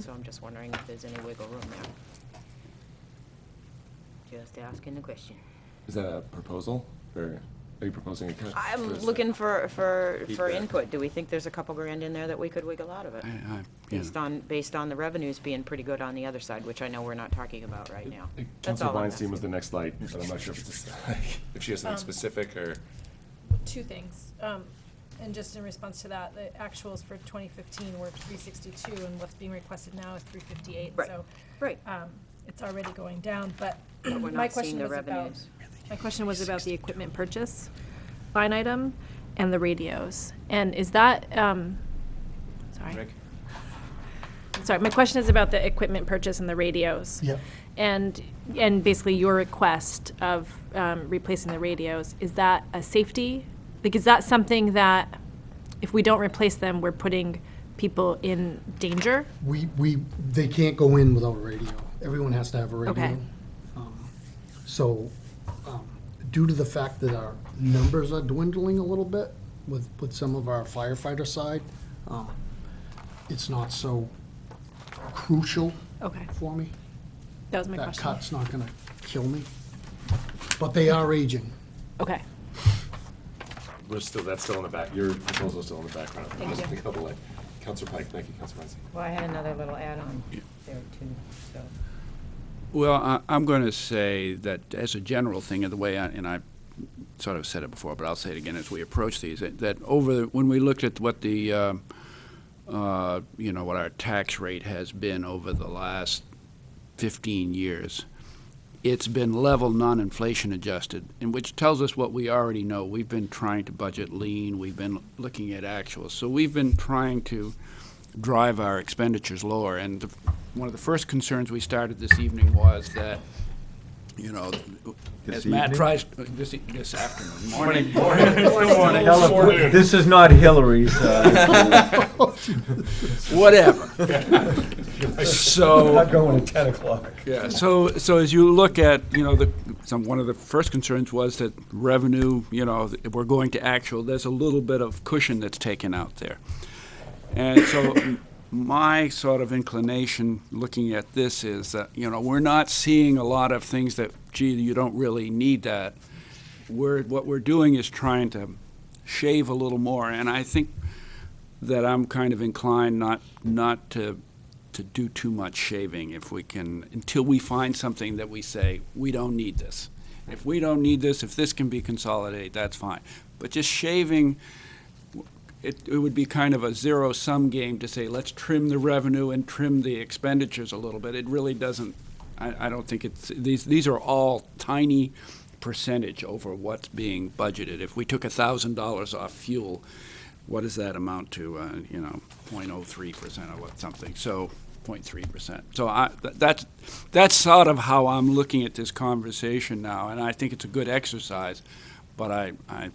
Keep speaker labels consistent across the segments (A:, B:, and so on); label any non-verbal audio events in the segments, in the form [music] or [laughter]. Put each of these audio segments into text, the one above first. A: so I'm just wondering if there's any wiggle room there. Just asking the question.
B: Is that a proposal, or are you proposing a cut?
A: I'm
B: Or is
A: looking
B: that-
A: for, for, for
B: Feedback.
A: input. Do we think there's a couple grand in there that we could wiggle out of it?
C: I- I- yeah.
A: Based on, based on the revenues being pretty good on the other side, which I know we're not talking about right now.
B: Uh,
A: That's
B: Counselor
A: all I'm
B: Weinstein was the
A: asking.
B: next light, but I'm not sure if it's, [laughs] if she has something
D: Um,
B: specific, or,
D: Two things, um, and just in response to that, the actuals for twenty fifteen were three sixty-two, and what's being requested now is three fifty-eight,
A: Right,
D: so.
A: right.
D: Um, it's already going down, but
A: But we're
D: my
A: not seeing
D: question
A: the
D: was about,
A: revenues.
D: my question was about the equipment purchase line item and the radios, and is that, um, sorry.
B: Rick?
D: Sorry, my question is about the equipment purchase and the radios.
E: Yep.
D: And, and basically your request of um, replacing the radios, is that a safety? Like, is that something that if we don't replace them, we're putting people in danger?
E: We, we, they can't go in without a radio. Everyone has to have a radio.
D: Okay.
E: Um, So, um, due to the fact that our numbers are dwindling a little bit with, with some of our firefighter side, um, it's not so crucial
D: Okay,
E: for me.
D: that was my
E: That
D: question.
E: cut's not gonna kill me. But they are aging.
D: Okay,
B: we're still, that's still in the back, your proposal's still in the background.
D: Thank
B: Just
D: you.
B: a couple, like, Counselor Pike, thank you, Counselor Weinstein.
F: Well, I had another little add-on there too, so.
C: Well, I, I'm going to say that as a general thing, and the way I, and I sort of said it before, but I'll say it again as we approach these, that, that over the, when we looked at what the, um, uh, you know, what our tax rate has been over the last 15 years, it's been level non-inflation adjusted, and which tells us what we already know. We've been trying to budget lean. We've been looking at actuals. So we've been trying to drive our expenditures lower. And the, one of the first concerns we started this evening was that, you know,
B: This
C: as Matt
B: evening?
C: tries this, e- this afternoon, morning, [laughs]
G: This is not Hillary's. uh,
C: whatever. so
G: going at 10 o'clock.
C: Yeah, so, so as you look at, you know, the, some, one of the first concerns was that revenue, you know, if we're going to actual, there's a little bit of cushion that's taken out there. And so my sort of inclination looking at this is that, you know, we're not seeing a lot of things that, gee, you don't really need that. We're, what we're doing is trying to shave a little more, and I think that I'm kind of inclined not, not to, to do too much shaving if we can, until we find something that we say, we don't need this. If we don't need this, if this can be consolidated, that's fine. But just shaving, it, it would be kind of a zero-sum game to say, let's trim the revenue and trim the expenditures a little bit. It really doesn't, I, I don't think it's, these, these are all tiny percentage over what's being budgeted. If we took a thousand dollars off fuel, what does that amount to, uh, you know, 0.03 percent or what, something, so 0.3 percent. So I, th- that's, that's sort of how I'm looking at this conversation now, and I think it's a good exercise, but I, I,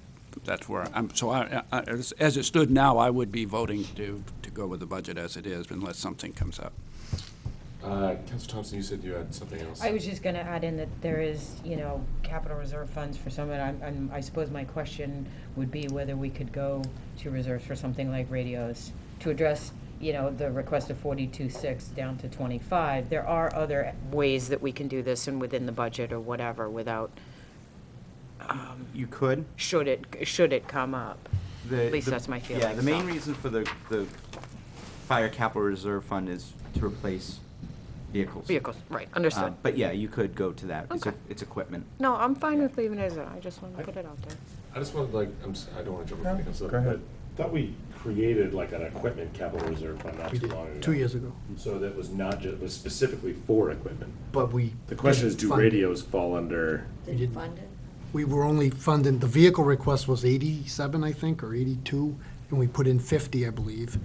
C: that's where, I'm, so I, I- as as it stood now, I would be voting to, to go with the budget as it is unless something comes up.
B: Uh, Counselor Thompson, you said you had something else.
F: I was just gonna add in that there is, you know, capital reserve funds for some, and I'm, I'm, I suppose my question would be whether we could go to reserves for something like radios to address, you know, the request of forty-two six down to twenty-five. There are other
A: Ways that we can do this and within the budget or whatever without,
G: You could.
A: should it, should it come up?
G: The-
A: At least
G: the-
A: that's my feeling.
G: Yeah, the main
A: so.
G: reason for the, the fire capital reserve fund is to replace vehicles.
A: Vehicles, right,
G: Uh,
A: understood.
G: But yeah, you could go to that. It's, a-
A: Okay.
G: it's equipment.
A: No, I'm fine with leaving it as that. I just want to put it out there.
B: I just wanted, like, I'm, s- I don't wanna jump in front of Counselor.
G: go ahead.
B: but Thought we created like an equipment capital reserve fund not
E: We
B: too
E: did,
B: long ago.
E: two years ago.
B: So that was not just, was specifically for equipment.
E: But we.
B: The question is,
E: didn't
B: do
E: fund it.
B: radios fall under?
E: We didn't. We were only funding, the vehicle request was eighty-seven, I think, or eighty-two, and we put in fifty, I believe.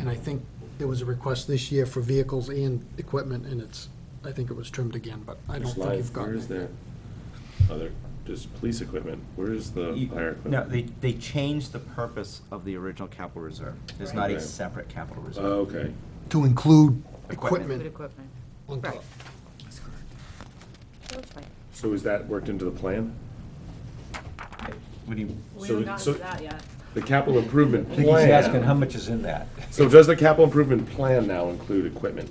E: And I think there was a request this year for vehicles and equipment, and it's, I think it was trimmed again, but I don't
B: Just
E: think
B: live-
E: you've
B: Where is
E: gotten it.
B: that other, just police equipment? Where is the
G: You-
B: fire
G: No,
B: equipment?
G: they, they changed the purpose of the original capital reserve. It's not a
B: Right.
G: separate capital
B: Oh,
G: reserve.
B: okay.
E: To include
G: Equipment.
A: Good
E: equipment
A: equipment.
E: on
A: Right.
E: top.
A: That's fine.
B: So is that worked into the plan?
G: What do you?
B: We haven't gotten to that
A: yet.
B: The capital improvement
G: he's asking
B: plan.
G: much is in that?
B: So does the capital improvement plan now include equipment?